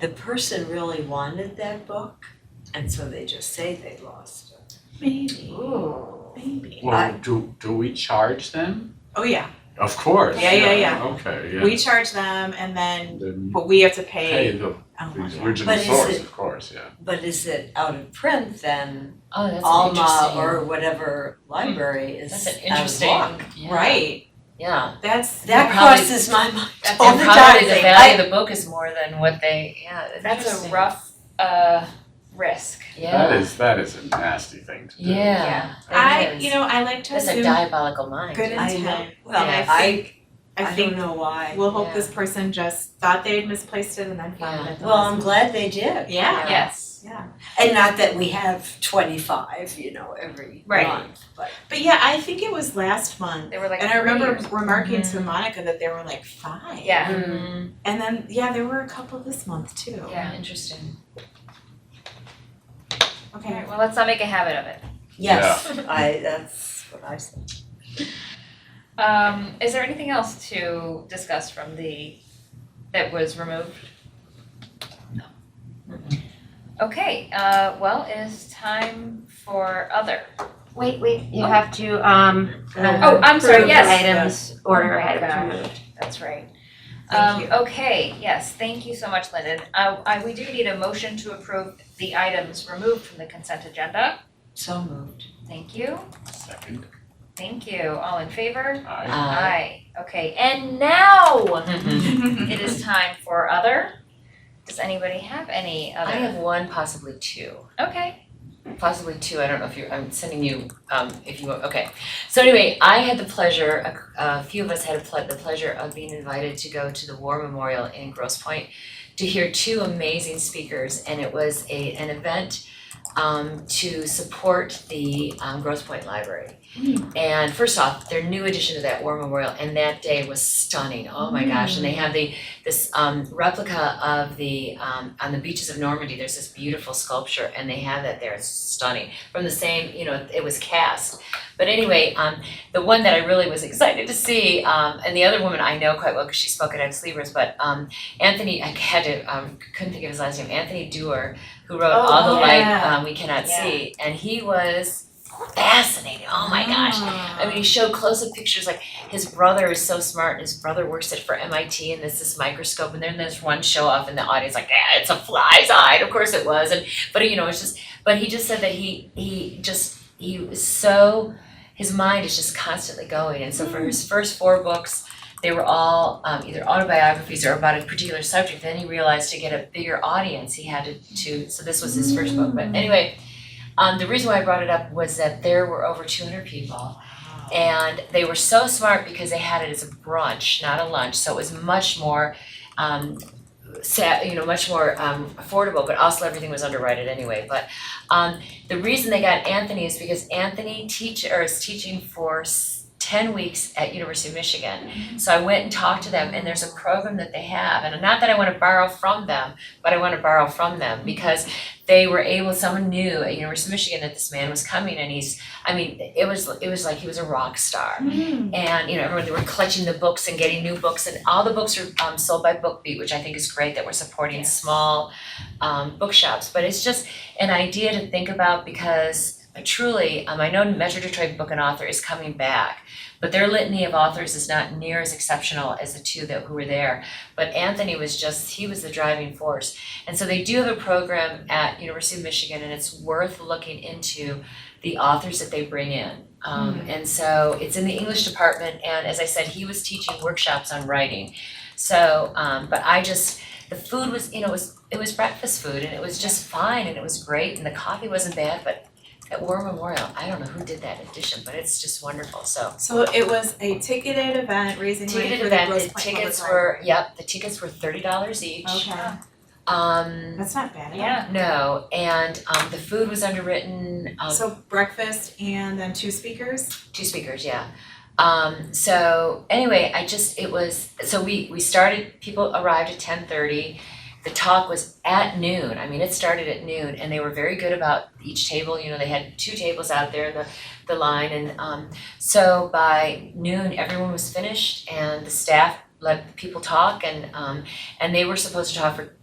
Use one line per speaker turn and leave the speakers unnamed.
the person really wanted that book, and so they just say they lost it.
Maybe,
Ooh.
maybe.
Well,
I-
do, do we charge them?
Oh, yeah,
Of course.
Yeah, yeah, yeah.
Okay, yeah.
we charge them and then,
Then you
but we have to
pay
pay.
the,
Oh, my
the
God.
original
But is
source,
it-
of course, yeah.
But is it out of print then?
Oh, that's an
Alma
interesting. Hmm.
or whatever library is
That's an
out of
interesting.
luck.
yeah,
Right,
Yeah.
that's,
That
Probably-
crosses my mind
that's
all
And
the time.
probably the
I-
value of the book is more than what they, yeah,
That's a
interesting.
rough uh risk.
Yeah.
That is, that is a nasty thing to do.
Yeah.
I,
That
you
is.
know, I like to
That's a
assume
diabolical mind.
good
I know,
intent,
well,
Yeah, I
I,
I
I don't
think,
know why.
we'll hope
Yeah.
this person just thought they had misplaced it and then found it. at the
Well, I'm
last
glad they did.
minute. Yeah,
Yes.
yeah,
And not that we have twenty-five, you know, every
Right.
month, but
but yeah, I think it was last month.
They were like
And I remember
three
remarking to
Mm-hmm.
Monica that there were like five.
Yeah.
And then, yeah, there were a couple this month too.
Yeah.
Yeah, interesting.
years.
Okay.
Alright, well, let's not make a habit of it.
yes, I, that's what I said.
Um, is there anything else to discuss from the, that was removed? No. Okay, uh, well, it is time for other.
Wait, wait, you
Oh.
have to, um,
Oh, I'm sorry,
approve
yes.
items, order
Oh my
items
gosh.
removed.
That's right.
Thank
Um,
you.
okay, yes, thank you so much, Lyndon. I, I, we do need a motion to approve the items removed from the consent agenda.
So moved.
Thank you,
Second,
thank you. All in favor?
I,
Uh,
Okay, and now
mhm.
it is time for other. Does anybody have any
I
other?
have one, possibly two.
Okay,
possibly two, I don't know if you're, I'm sending you, um, if you, okay. So anyway, I had the pleasure, a, a few of us had a ple- the pleasure of being invited to go to the War Memorial in Grosse Pointe to hear two amazing speakers, and it was a, an event, um, to support the, um, Grosse Pointe Library.
Hmm.
And first off, their new addition to that War Memorial, and that day was stunning, oh my gosh,
Hmm.
and they have the, this, um, replica of the, um, on the beaches of Normandy, there's this beautiful sculpture, and they have that there, it's stunning, from the same, you know, it was cast. But anyway, um, the one that I really was excited to see, um, and the other woman I know quite well, because she spoke at Ed Sleevers, but, um, Anthony, I had to, um, couldn't think of his last name, Anthony Dewar, who wrote
Oh,
All the Light,
yeah.
um, We Cannot
Yeah.
See, and he was fascinating, oh my gosh.
Mm. Ah.
I mean, he showed close-up pictures, like his brother is so smart, and his brother works at for MIT, and there's this microscope, and then there's one show off in the audience, like, yeah, it's a fly's eye, and of course it was, and but you know, it's just, but he just said that he he just he was so, his mind is just constantly going, and so for his first four books, they were all um, either autobiographies or about a particular subject. Then he realized to get a bigger audience, he had to, to so this was his first book, but anyway. Um, the reason why I brought it up was that there were over 200 people and they were so smart because they had it as a brunch, not a lunch, so it was much more um sa- you know, much more um affordable, but also everything was underwritten anyway, but um the reason they got Anthony is because Anthony teach or is teaching for s- ten weeks at University of Michigan. So I went and talked to them and there's a program that they have, and not that I wanna borrow from them, but I wanna borrow from them because they were able, someone knew at University of Michigan that this man was coming and he's I mean, it was it was like he was a rock star, and you know everyone they were collecting the books and getting new books, and all the books are um, sold by BookBeat, which I think is great that we're supporting small um, bookshops. But it's just an idea to think about because uh, truly, um, I know Metro Detroit Book and Author is coming back, but their litany of authors is not near as exceptional as the two that who were there. But Anthony was just he was the driving force, and so they do have a program at University of Michigan, and it's worth looking into the authors that they bring in. Um,
Mm-hmm.
And so it's in the English department, and as I said, he was teaching workshops on writing. So, um, but I just, the food was, you know, it was, it was breakfast food, and it was just fine, and it was great, and the coffee wasn't bad, but at War Memorial, I don't know who did that edition, but it's just wonderful, so.
So it was a ticketed event raising money
Ticketed
for the
event,
Grosse
the
Pointe
tickets
Public Library.
were, yep, the tickets were thirty dollars each.
Okay,
Um,
that's not bad.
yeah,
no, and, um, the food was underwritten, um,
So breakfast and then two speakers.
two speakers yeah um so anyway i just it was so we we started people arrived at 10:30 the talk was at noon i mean it started at noon and they were very good about each table you know they had two tables out there in the the line and um so by noon everyone was finished and the staff let the people talk and um and they were supposed to talk for